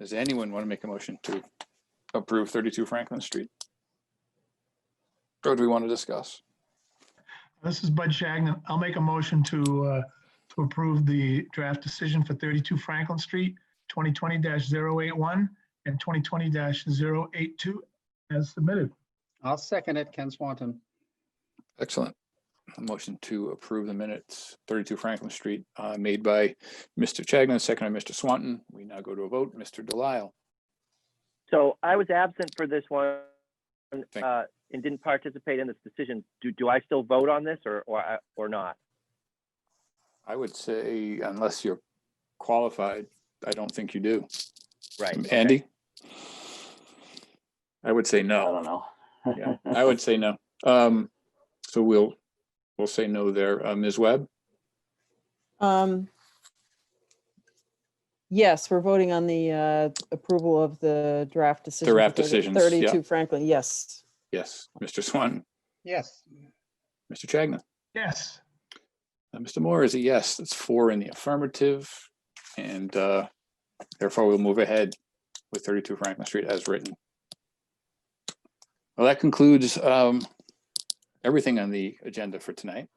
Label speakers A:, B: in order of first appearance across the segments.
A: Does anyone want to make a motion to approve thirty-two Franklin Street? Or do we want to discuss?
B: This is Bud Shagnon. I'll make a motion to, uh, to approve the draft decision for 32 Franklin Street, 2020-081 and 2020-082 as submitted.
C: I'll second it, Ken Swanton.
A: Excellent. A Motion to approve the minutes, thirty-two Franklin Street, uh, made by Mr. Chagnon, second by Mr. Swanton. We now go to a vote. Mr. Delisle,
D: So I was absent for this one
A: you.
D: uh, and didn't participate in this decision. Do, do I still vote on this or, or, I- or not?
A: I would say unless you're qualified, I don't think you do.
D: Right. okay.
A: Andy? I would say
E: I
A: no.
E: don't know.
A: Yeah, I would say no. Um, so we'll, we'll say no there. Uh, Ms. Webb?
F: Um, Yes, we're voting on the uh, approval of the draft decision. for
A: draft
F: 30
A: decisions, yeah.
F: 32 Franklin, yes.
A: Yes. Mr. Swanton?
C: Yes,
A: Mr. Chagnon?
B: Yes,
A: Uh, Mr. Moore is a yes. That's four in the affirmative. And uh, therefore, we'll move ahead with 32 Franklin Street as written. Well, that concludes um, everything on the agenda for tonight.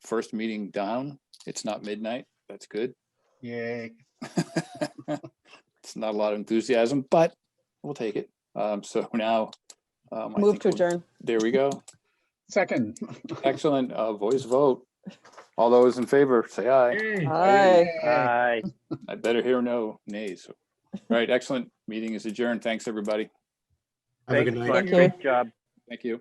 A: First meeting down. It's not midnight. That's good.
C: yay.
A: It's not a lot of enthusiasm, but we'll take it. Um, So now. um, I
F: Move
A: think
F: to
A: we'll-
F: adjourn.
A: There we go.
C: Second.
A: Excellent. Uh, Voice vote. All those in favor, say aye.
B: Yay.
F: Aye.
C: Yay.
D: Aye.
A: I better hear no nays. Right, excellent. Meeting is adjourned. Thanks, everybody.
G: Have a
D: Thanks,
G: good night.
D: Clark.
F: Thank you.
D: Great job.
A: Thank you.